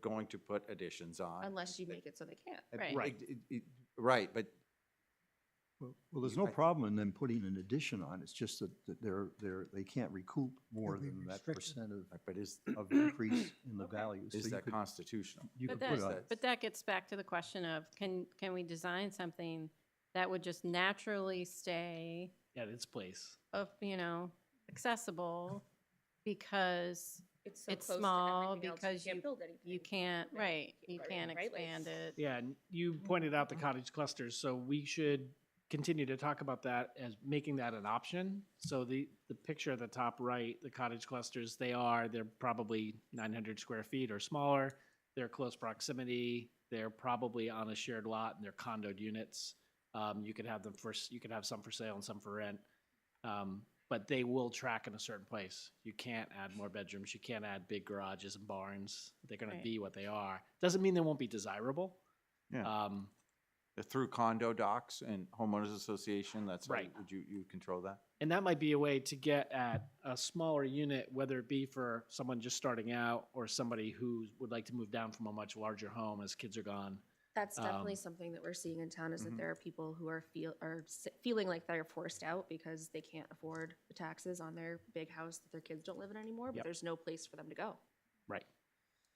going to put additions on. unless you make it so they can't, Uh, right? Right, it- it- right, but Well, well, there's no I- problem in them putting an addition on, it's just that, that they're, they're, they can't recoup more be than that restricted. percent of, but is, of increase in the value. So is you that could- constitutional? You But could put that, a, that- but that gets back to the question of, can, can we design something that would just naturally stay at its place. of, you know, accessible because so It's close to small everything else, because you- build you anything. can't, Right, right, keep you right, can't right, like- expand it. Yeah, and you pointed out the cottage clusters, so we should continue to talk about that as making that an option. So the, the picture at the top right, the cottage clusters, they are, they're probably nine hundred square feet or smaller. They're close proximity, they're probably on a shared lot and they're condoed units. Um, you could have them for, s- you could have some for sale and some for rent. Um, but they will track in a certain place. You can't add more bedrooms. You can't add big garages and barns. They're going Right. to be what they are. Doesn't mean they won't be desirable. Yeah. Um, Through condo docs and homeowners association, that's how, you- Right. would you, you control that? and that might be a way to get at a smaller unit, whether it be for someone just starting out or somebody who would like to move down from a much larger home as kids are gone. That's definitely Um, something that we're seeing in town is that Mhm. there are people who are feel, are s- feeling like they're forced out because they can't afford the taxes on their big house that their kids don't live in anymore, but Yep. there's no place for them to go. Right.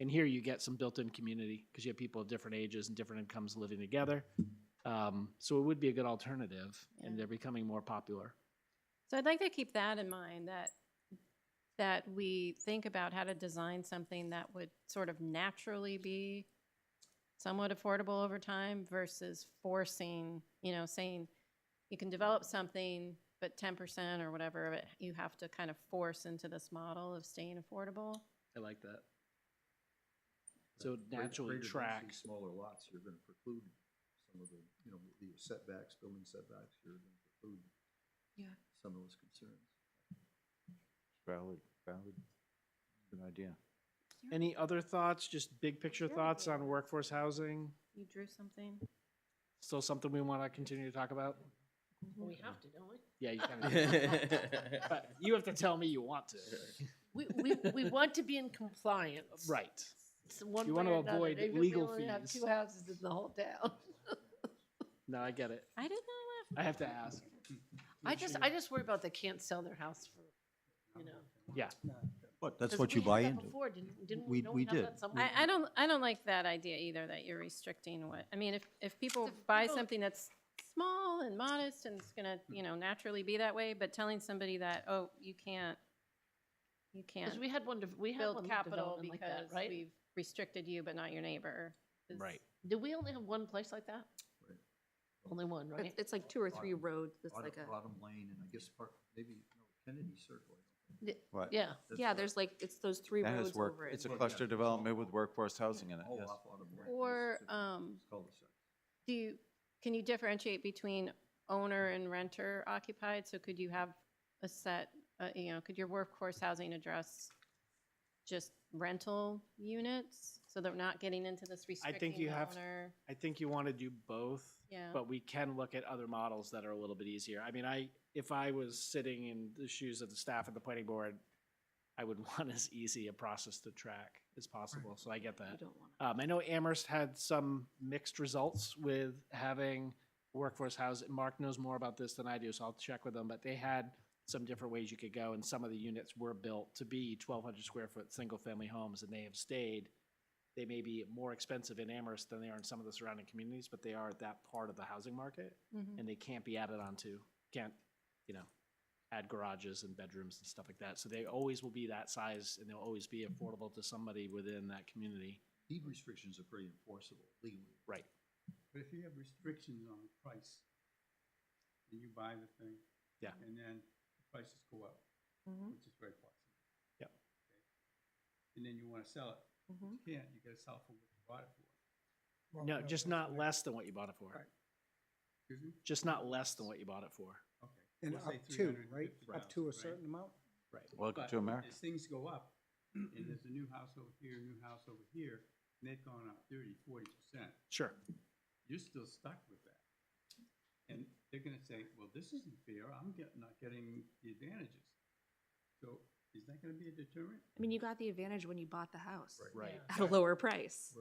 And here you get some built-in community because you have people of different ages and different incomes living together. Um, so it would be a good alternative, and Yeah. they're becoming more popular. So I'd like to keep that in mind, that, that we think about how to design something that would sort of naturally be somewhat affordable over time versus forcing, you know, saying you can develop something, but ten percent or whatever of it, you have to kind of force into this model of staying affordable. I like that. So it naturally tracks. Smaller lots, you're gonna preclude some of the, you know, the setbacks, building setbacks, you're gonna preclude Yeah. some of those concerns. Valid, valid, good idea. Any other thoughts, just big picture Yeah. thoughts on workforce housing? You drew something? Still something we want to continue to talk about? We have to, don't we? Yeah, you kind of. But you have to tell me you want to. We, we, we want to be in compliance. Right. It's one You way want to or another. avoid Maybe we legal only have fees. Two houses in the whole town. No, I get it. I didn't I know. have to ask. I just, I just worry about they can't sell their house for, you know. Yeah. But that's 'cause what you we had buy that into. Before, didn't, didn't We- we? Don't we have did. that somewhere? I, I don't, I don't like that idea either, that you're restricting what, I mean, if, if people It's a- buy people- something that's small and modest and it's gonna, you know, naturally be that way, but telling somebody that, oh, you can't, you can't Cause we had one, de- we had one build capital development like because that, right? we've restricted you but not your neighbor. is- Right. Did we only have one place like that? Right. Only one, It's- right? It's like two or three Bottom- roads, that's Bottom- like a, Bottom Lane, and I guess part, maybe, no, Kennedy Circle. I don't think. The- Right. Yeah. That's yeah, what- there's like, it's those three That roads is work, over it. it's a Well, yeah, cluster it's all- development with workforce housing in it, All yes. off Autumn Lane. Or, It's a um, cul-de-sac. do you, can you differentiate between owner and renter occupied? So could you have a set, uh, you know, could your workforce housing address just rental units? So they're not getting into this restricting you the have- owner? I think you want to do both. Yeah. But we can look at other models that are a little bit easier. I mean, I, if I was sitting in the shoes of the staff at the planning board, I would want as easy a process to track as possible, so I get You that. don't want Um, I know Amherst had some mixed results with having workforce housing. Mark knows more about this than I do, so I'll check with them, but they had some different ways you could go, and some of the units were built to be twelve hundred square foot, single-family homes, and they have stayed they may be more expensive in Amherst than they are in some of the surrounding communities, but they are at that part of the housing market Mhm. and they can't be added onto, can't, you know, add garages and bedrooms and stuff like that. So they always will be that size and they'll always be affordable to somebody within that community. Deed restrictions are pretty enforceable legally. Right. But if you have restrictions on the price, and you buy the thing. Yeah. And then the prices go up, Mm-hmm. Mhm. which is very possible. Yep. Okay. And then you wanna sell it, Mhm. Mm-hmm. you can't, you gotta sell for what you bought it for, No, just not less than what you bought it for. Right. excuse me? Just not less than what you bought it for. Okay. And We'll up say to, right? Up 350,000, to a right? certain amount? Welcome But to America. As things go up, and there's a new house over here, a new house over here, and they've gone up thirty, forty percent, Sure. you're still stuck with that. And they're gonna say, well, this isn't fair, I'm get, not getting the advantages. So Is that gonna be a deterrent? I mean, you got the advantage when you bought the house Right. Right. at a lower price.